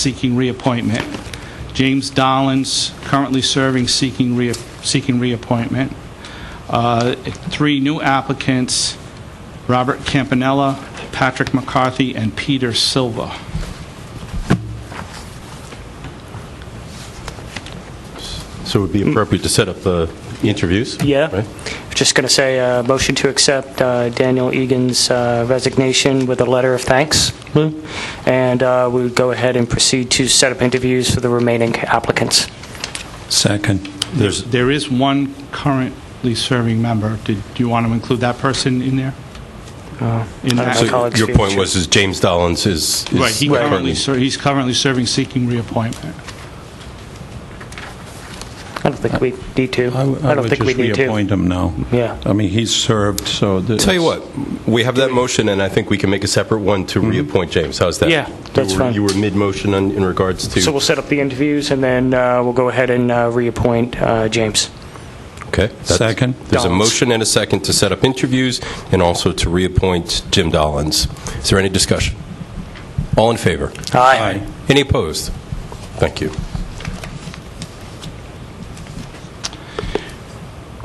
seeking reappointment. James Dollins, currently serving, seeking rea- seeking reappointment. Uh, Three new applicants, Robert Campanella, Patrick McCarthy, and Peter Silva. So it would be appropriate to set up the interviews? Mm. Yeah. right? Just going to say, uh, motion to accept uh, Daniel Egan's uh, resignation with a letter of thanks. And uh, we would go ahead and proceed to set up interviews for the remaining applicants. Second. There's, There is one currently serving member. Did you want to include that person in there? In I don't that- know. so colleagues your feel point sure. was, is James Dollins is... is Right, he currently, ser- he's currently serving, seeking reappointment. I don't think we need to. I w- I don't think we would need just to. reappoint him now. Yeah. I mean, he's served, so... th- Tell you what, we have that motion, and I think we can make a separate one to reappoint James. How's that? Mm-hmm. Yeah, that's You were- fine. You were mid-motion on- in regards So we'll to, set up the interviews, and then uh, we'll go ahead and uh, reappoint uh, James. okay? that's- Second. There's a Dollins. motion and a second to set up interviews and also to reappoint Jim Dollins. Is there any discussion? All in favor? Aye. Any opposed? Thank you.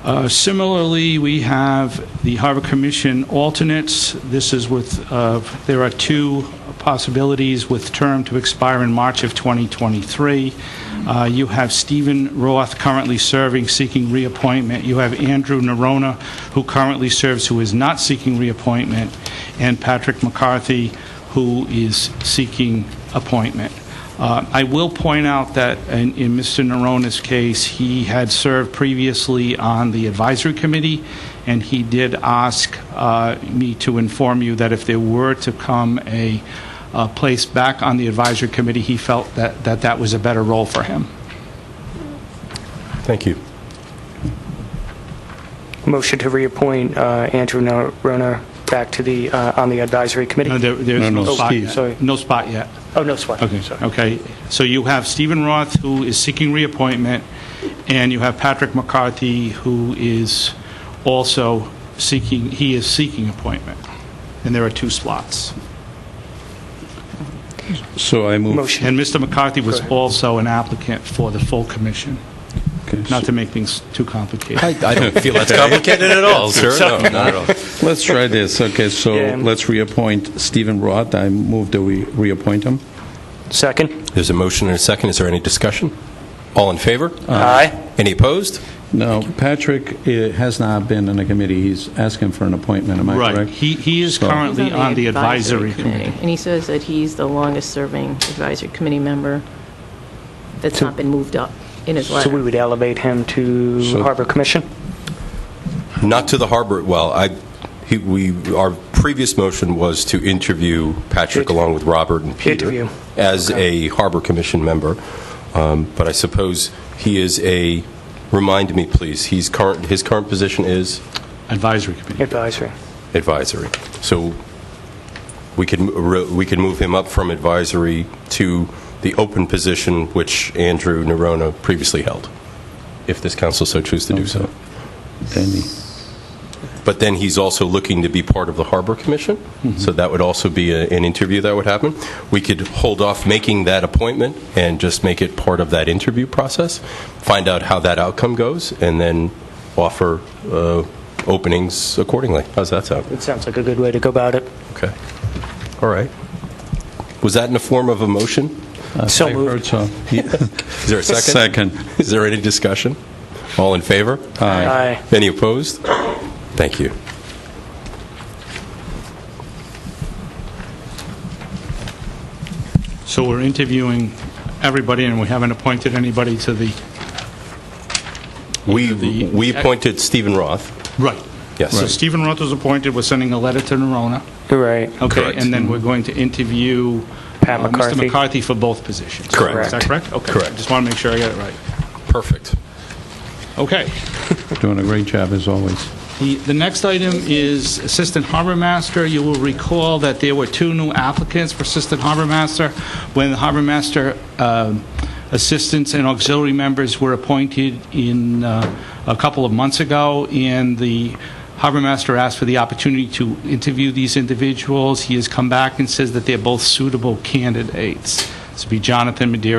Uh, Similarly, we have the Harbor Commission alternates. This is with, uh, there are two possibilities with term to expire in March of 2023. Uh, You have Stephen Roth currently serving, seeking reappointment. You have Andrew Nerona, who currently serves, who is not seeking reappointment, and Patrick McCarthy, who is seeking appointment. Uh, I will point out that in in Mr. Narona's case, he had served previously on the advisory committee, and he did ask uh, me to inform you that if there were to come a uh, place back on the advisory committee, he felt that that that was a better role for him. Thank you. Motion to reappoint uh, Andrew Roner back to the, uh, on the advisory No, committee. there- There's No, no no, spot Steve. Sorry. yet. No spot yet. Oh, no, sorry. Okay, so you have Stephen Roth, who is seeking reappointment, and you have Patrick McCarthy, who is also seeking, he is seeking appointment, and there are two slots. So I move... Motion. And Mr. McCarthy was also an applicant for the full commission, Okay, so not to make things too complicated. I, I don't feel that's complicated at all, sir. No, not at all. Let's try this. Okay, so Yeah. let's reappoint Stephen Roth. I move that we reappoint him. Second? There's a motion and a second. Is there any discussion? All in favor? Aye. Any opposed? No, Patrick eh, has not been in the committee. He's asking for an appointment, am I correct? Right, he, he is So- He's currently on the advisory committee. And he says that he's the longest-serving advisory committee member that's not been moved up in his So we letter. would elevate him to So- Harbor Commission? Not to the harbor, well, I, he, we, our previous motion was to interview Patrick Interview. along with Robert and Peter Interview. as a harbor commission member, Um, but I suppose he is a, remind me, please, he's current, his current position is Advisory committee. Advisory. advisory. So we could, m- ro- we could move him up from advisory to the open position which Andrew Nerona previously held, if this council so chooses to do so. Then he- But then he's also looking to be part of the Harbor Commission, so that would also be a- an interview that would happen. We could hold off making that appointment and just make it part of that interview process, find out how that outcome goes, and then offer uh, openings accordingly. How's that sound? It sounds like a good way to go about it. Okay. All right. Was that in the form of a motion? So Uh, I moved. heard so. He- Is there a second? Second. Is there any discussion? All in favor? Uh, Aye. Any opposed? Thank you. So we're interviewing everybody, and we haven't appointed anybody to the, We we appointed Stephen Roth. right. Yes. So Stephen Roth was appointed, we're sending a letter to Nerona. You're right. Okay, Correct. and then we're going to interview Pat uh, Mr. McCarthy. McCarthy for both positions. Correct. Is that correct? Okay. Correct. Just want to make sure I got it right. Perfect. Okay. Doing a great job, as always. The the next item is Assistant Harbor Master. You will recall that there were two new applicants for Assistant Harbor Master. When the Harbor Master um, assistants and auxiliary members were appointed in uh, a couple of months ago, and the Harbor Master asked for the opportunity to interview these individuals. He has come back and says that they're both suitable candidates. This would be Jonathan Madeira